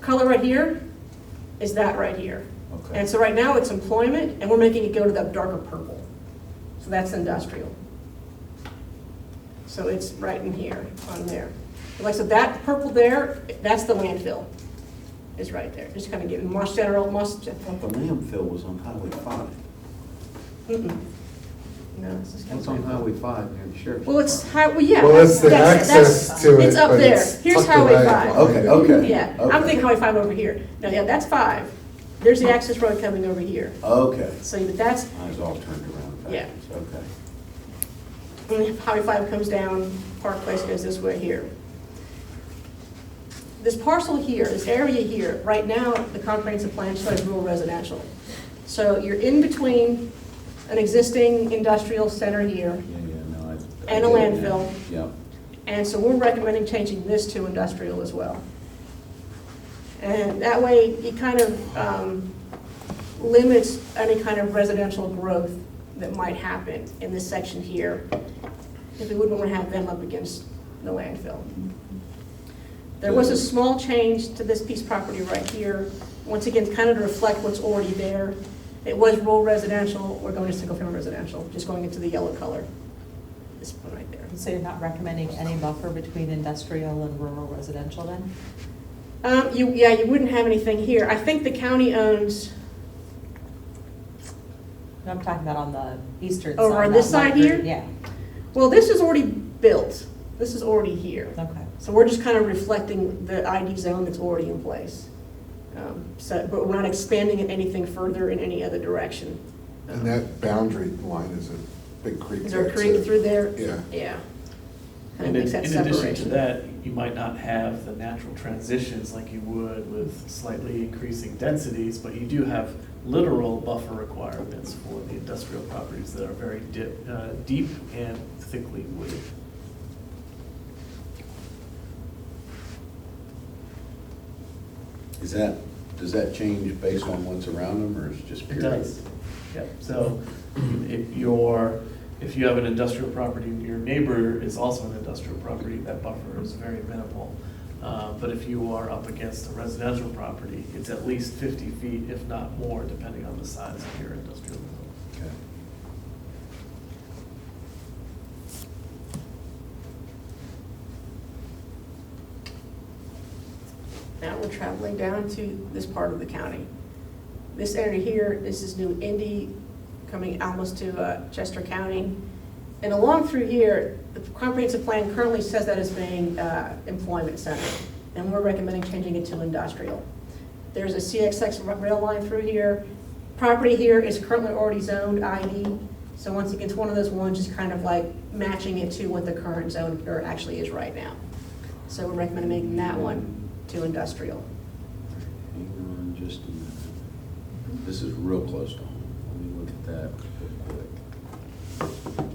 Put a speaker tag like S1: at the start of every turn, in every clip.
S1: color right here is that right here.
S2: Okay.
S1: And so right now, it's employment, and we're making it go to the darker purple. So that's industrial. So it's right in here, on there. But Like, so that purple there, that's the landfill, is right there. Just kind of getting Moss General, Moss, Gen-
S2: I thought the landfill was on Highway five.
S1: mm-mm. No, this is.
S2: That's on Highway five near the sheriff's.
S1: Well, it's, hi- well, yeah.
S3: Well, it's the
S1: that's- that's-
S3: access to it.
S1: It's up
S3: but
S1: there.
S3: it's
S1: Here's
S3: tucked
S1: Highway
S3: away.
S1: 5.
S2: Okay, okay.
S1: Yeah, I'm
S2: Okay.
S1: thinking Highway 5 over here. No, yeah, that's 5. There's the access road coming over here.
S2: Okay.
S1: So that's,
S2: Mine's all turned around
S1: Yeah.
S2: backwards, okay.
S1: when Highway 5 comes down, Park Place goes this way here. This parcel here, this area here, right now, the comprehensive plan shows rural residential. So you're in between an existing industrial center here,
S2: Yeah, yeah, no, I. I
S1: And a
S2: get it now.
S1: landfill.
S2: Yep.
S1: And so we're recommending changing this to industrial as well. And that way, it kind of um, limits any kind of residential growth that might happen in this section here, if we wouldn't want to have them up against the landfill. There was a small change to this piece of property right here, once again, kind of to reflect what's already there. It was rural residential, we're going to single-family residential, just going into the yellow color, this one right there.
S4: So you're not recommending any buffer between industrial and rural residential then?
S1: Um, you, yeah, you wouldn't have anything here. I think the county owns,
S4: No, I'm talking about on the eastern side.
S1: Over Oh, on this
S4: not
S1: side
S4: Longview.
S1: here?
S4: Yeah,
S1: well, this is already built. This is already here.
S4: okay.
S1: So we're just kind of reflecting the ID zone that's already in place. Um, so, but we're not expanding it anything further in any other direction.
S3: And that boundary line is a big creek.
S1: Is there a
S3: that's
S1: creek through there?
S3: Yeah.
S1: Yeah. Kind of
S5: And in,
S1: makes that
S5: in addition to
S1: separation.
S5: that, you might not have the natural transitions like you would with slightly increasing densities, but you do have literal buffer requirements for the industrial properties that are very di- uh, deep and thickly wooded.
S2: Is that, does that change based on what's around them, or is it just
S5: It
S2: pure?
S5: does. Yep, so if your, if you have an industrial property, and your neighbor is also an industrial property, that buffer is very minimal. Uh, But if you are up against a residential property, it's at least fifty feet, if not more, depending on the size of your industrial zone.
S2: Okay.
S1: Now we're traveling down to this part of the county. This area here, this is New Indy, coming almost to uh, Chester County. And along through here, the comprehensive plan currently says that as being uh, employment center, and we're recommending changing it to industrial. There's a CXX r- rail line through here. Property here is currently already zoned ID, so once again, it's one of those ones just kind of like matching it to what the current zone or actually is right now. So we're recommending making that one to industrial.
S2: Hang on just a minute. This is real close to home. Let me look at that real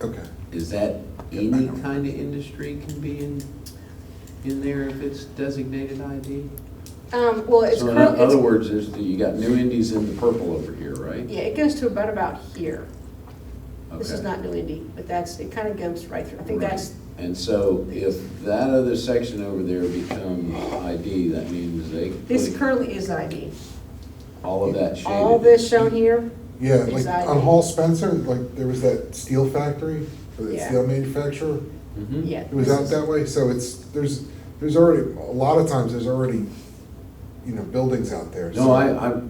S2: quick.
S3: Okay.
S2: Is that any kind of industry can be in, in there if it's designated ID?
S1: Um, well, it's
S2: So in other
S1: currently,
S2: words, there's, the- you got new indies in the purple over here, right?
S1: yeah, it goes to about about here. This is
S2: Okay.
S1: not really deep, but that's, it kind of goes right through. I think
S2: Right.
S1: that's,
S2: And so if that other section over there becomes ID, that means they.
S1: this
S2: put
S1: currently is ID.
S2: All of that shaded.
S1: All this shown here,
S3: Yeah, like
S1: Exactly.
S3: on Hall Spencer, like there was that steel factory, or that
S1: Yeah.
S3: steel manufacturer.
S2: Mhm.
S1: yeah.
S3: It was
S1: this
S3: out
S1: is-
S3: that way, so it's, there's, there's already, a lot of times, there's already, you know, buildings out there.
S2: No,
S3: so-
S2: I, I,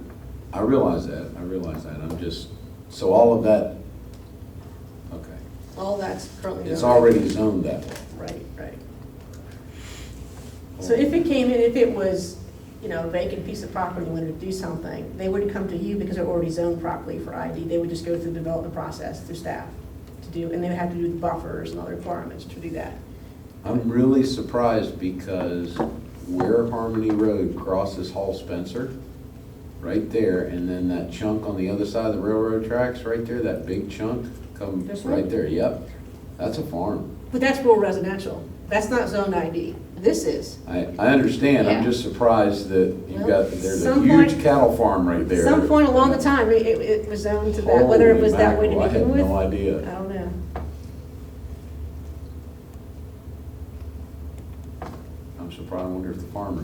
S2: I realize that, I realize that, I'm just, so all of that, okay.
S1: All that's currently.
S2: It's
S1: zoned.
S2: already zoned that way.
S1: Right, right. So if it came in, if it was, you know, a vacant piece of property, and wanted to do something, they wouldn't come to you because they're already zoned properly for ID. They would just go through the development process through staff to do, and they would have to do the buffers and other requirements to do that.
S2: I'm really surprised because where Harmony Road crosses Hall Spencer, right there, and then that chunk on the other side of the railroad tracks, right there, that big chunk, come
S1: This one?
S2: right there, yep. That's a farm.
S1: But that's rural residential. That's not zoned ID. This is.
S2: I, I understand, I'm
S1: Yeah.
S2: just surprised that you've got, there's a
S1: Some point-
S2: huge cattle farm right there.
S1: Some point along the time, it, it- it was zoned to that, whether it was that way to
S2: Holy
S1: begin with.
S2: mackerel, I had no
S1: I
S2: idea.
S1: don't know.
S2: I'm surprised we're wonder if the farmer